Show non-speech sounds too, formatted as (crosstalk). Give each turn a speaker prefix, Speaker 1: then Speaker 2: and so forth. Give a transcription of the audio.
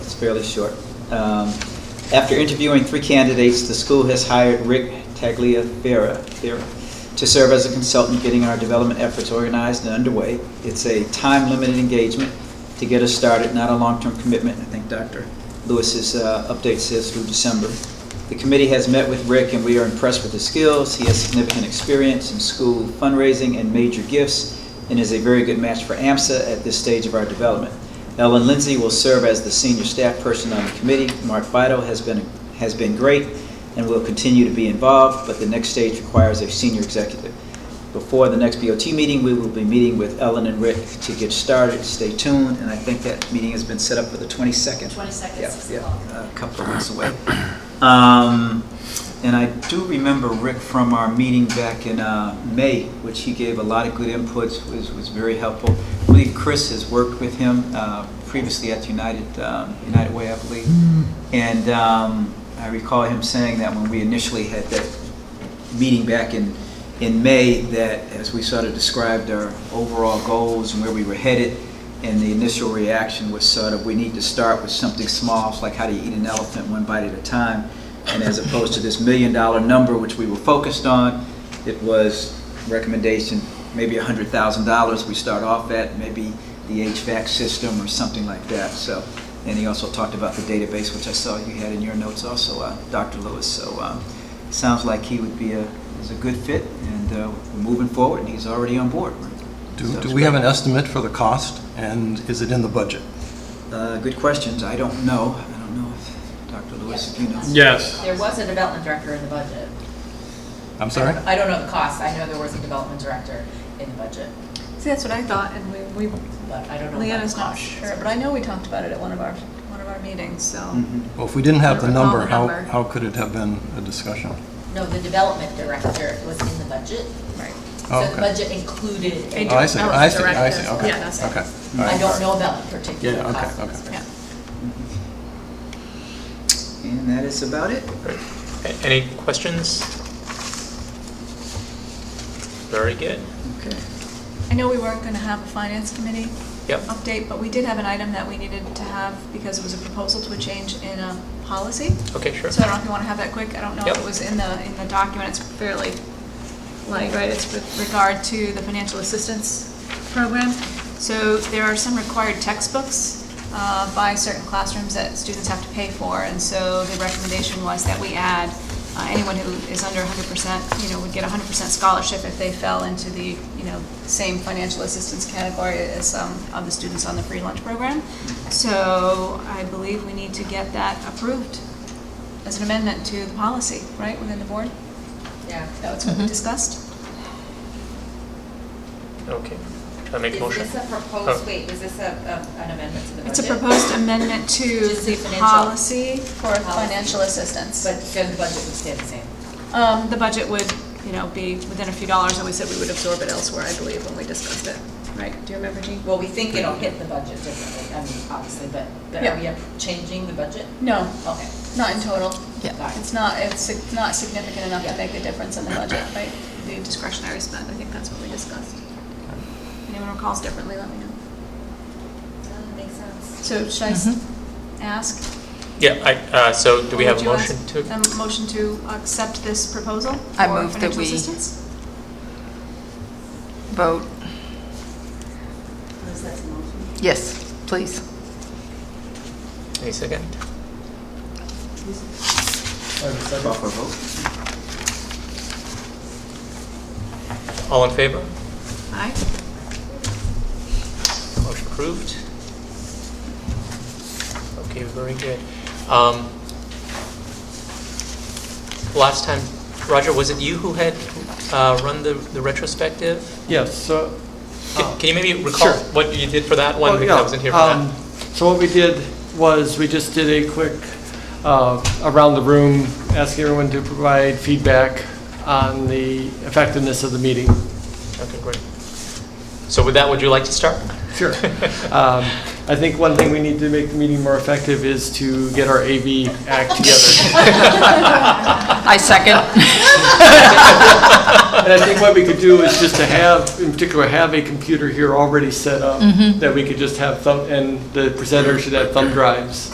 Speaker 1: fairly short. Um, After interviewing three candidates, the school has hired Rick Tagliaferra Ferra, to serve as a consultant getting our development efforts organized and underway. It's a time-limited engagement to get us started, not a long-term commitment. I think Dr. Lewis's uh, update says through December. The committee has met with Rick, and we are impressed with his skills. He has significant experience in school fundraising and major gifts, and is a very good match for AMSA at this stage of our development. Ellen Lindsay will serve as the senior staff person on the committee. Mark Vito has been, has been great and will continue to be involved, but the next stage requires a senior executive. Before the next BOT meeting, we will be meeting with Ellen and Rick to get started. Stay tuned, and I think that meeting has been set up for the 22nd.
Speaker 2: 22nd,
Speaker 1: Yeah,
Speaker 2: six
Speaker 1: yeah,
Speaker 2: o'clock.
Speaker 1: A couple of weeks away. Um, And I do remember Rick from our meeting back in uh, May, which he gave a lot of good inputs, was, was very helpful. I believe Chris has worked with him uh, previously at United, um, United Way, I believe. And um, I recall him saying that when we initially had that meeting back in, in May that, as we sort of described our overall goals and where we were headed, and the initial reaction was sort of, we need to start with something small, it's like how do you eat an elephant one bite at a time? And as opposed to this million-dollar number, which we were focused on, it was recommendation, maybe hundred thousand dollars we start off at, maybe the HVAC system or something like that, so. And he also talked about the database, which I saw you had in your notes also, uh, Dr. Lewis, so, um, Sounds like he would be a, is a good fit, and uh, we're moving forward, and he's already on board. So
Speaker 3: Do,
Speaker 1: it's
Speaker 3: do we have an
Speaker 1: great.
Speaker 3: estimate for the cost, and is it in the budget?
Speaker 1: Uh, Good questions, I don't know, I don't know if, Dr. Lewis, if you know.
Speaker 4: Yes.
Speaker 2: There was a development director in the budget.
Speaker 3: I'm sorry?
Speaker 2: I don't know the cost, I know there was a development director in the budget,
Speaker 5: See, that's what I thought, and we, we,
Speaker 2: but I don't know. about the
Speaker 5: Leanna's not
Speaker 2: cost.
Speaker 5: sure, but I know we talked about it at one of our, one of our meetings, so.
Speaker 1: Mhm.
Speaker 3: Well, if we didn't have the
Speaker 5: I don't recall
Speaker 3: number,
Speaker 5: the
Speaker 3: how,
Speaker 5: number.
Speaker 3: how could it have been a discussion?
Speaker 2: No, the development director was in the budget.
Speaker 5: Right.
Speaker 3: Oh,
Speaker 2: So the
Speaker 3: okay.
Speaker 2: budget included.
Speaker 5: They
Speaker 3: Oh, I
Speaker 5: do.
Speaker 3: see,
Speaker 5: That was
Speaker 3: I see, I
Speaker 5: direct,
Speaker 3: see,
Speaker 5: that's-
Speaker 3: okay,
Speaker 5: yeah, that's it.
Speaker 3: okay. all
Speaker 2: I
Speaker 3: right,
Speaker 2: don't
Speaker 3: all
Speaker 2: know about the particular
Speaker 3: Yeah, okay,
Speaker 2: cost. of this
Speaker 3: okay.
Speaker 5: Yeah.
Speaker 2: person.
Speaker 1: And that is about it.
Speaker 4: A- Any questions? Very good.
Speaker 1: Okay.
Speaker 5: I know we weren't gonna have a finance committee
Speaker 4: Yep.
Speaker 5: update, but we did have an item that we needed to have because it was a proposal to a change in a policy.
Speaker 4: Okay, sure.
Speaker 5: So I don't know if you wanna have that quick, I don't know if
Speaker 4: Yep.
Speaker 5: it was in the, in the document, it's fairly, like, right, it's with regard to the financial assistance program. So there are some required textbooks uh, by certain classrooms that students have to pay for, and so the recommendation was that we add, uh, anyone who is under hundred percent, you know, would get hundred percent scholarship if they fell into the, you know, same financial assistance category as some of the students on the free lunch program. So I believe we need to get that approved as an amendment to the policy, right, within the board?
Speaker 2: Yeah.
Speaker 5: That was what we discussed?
Speaker 4: Okay. I make motion.
Speaker 2: Is this a
Speaker 4: Oh.
Speaker 2: proposed, wait, is this a, a- an amendment to the budget?
Speaker 5: It's a proposed amendment to
Speaker 2: Just the
Speaker 5: the
Speaker 2: financial-
Speaker 5: policy for
Speaker 2: Policy.
Speaker 5: financial assistance.
Speaker 2: But then the budget would stay the same.
Speaker 5: Um, the budget would, you know, be within a few dollars, and we said we would absorb it elsewhere, I believe, when we discussed it, right? Do you remember, Jean?
Speaker 2: Well, we think it'll hit the budget differently, I mean, obviously, but, but are
Speaker 5: Yeah.
Speaker 2: we up- changing the budget?
Speaker 5: No,
Speaker 2: Okay.
Speaker 5: not in total.
Speaker 2: Yeah. Got it.
Speaker 5: It's not, it's sig- not significant enough to
Speaker 2: Yeah.
Speaker 5: make a difference in the budget, right? The discretionary spend, I think that's what we discussed. Anyone recalls differently, let me know.
Speaker 2: Makes sense.
Speaker 5: So should I s- ask?
Speaker 4: Yeah, I, uh, so do we
Speaker 5: Or
Speaker 4: have a
Speaker 5: would you
Speaker 4: motion
Speaker 5: ask-
Speaker 4: to?
Speaker 5: A motion to accept this proposal for
Speaker 6: I move that
Speaker 5: financial
Speaker 6: we-
Speaker 5: assistance?
Speaker 6: vote? Yes, please.
Speaker 4: Any second?
Speaker 1: Call for a vote.
Speaker 4: All in favor?
Speaker 5: Aye.
Speaker 4: Motion approved. Okay, very good. Um, Last time, Roger, was it you who had uh, run the the retrospective?
Speaker 7: Yes, so.
Speaker 4: Can can you maybe recall
Speaker 7: Oh. Sure.
Speaker 4: what you did for that one?
Speaker 7: Oh,
Speaker 4: Because I
Speaker 7: yeah,
Speaker 4: wasn't here for that.
Speaker 7: um, So what we did was, we just did a quick uh, around the room, asking everyone to provide feedback on the effectiveness of the meeting.
Speaker 4: Okay, great. So with that, would you like to start?
Speaker 7: Sure. (laughs) Um, I think one thing we need to make the meeting more effective is to get our AV act together.
Speaker 4: (laughs)
Speaker 6: I second.
Speaker 7: And I think what we could do is just to have, in particular, have a computer here already set up, that we could just have thumb, and the presenter should have thumb drives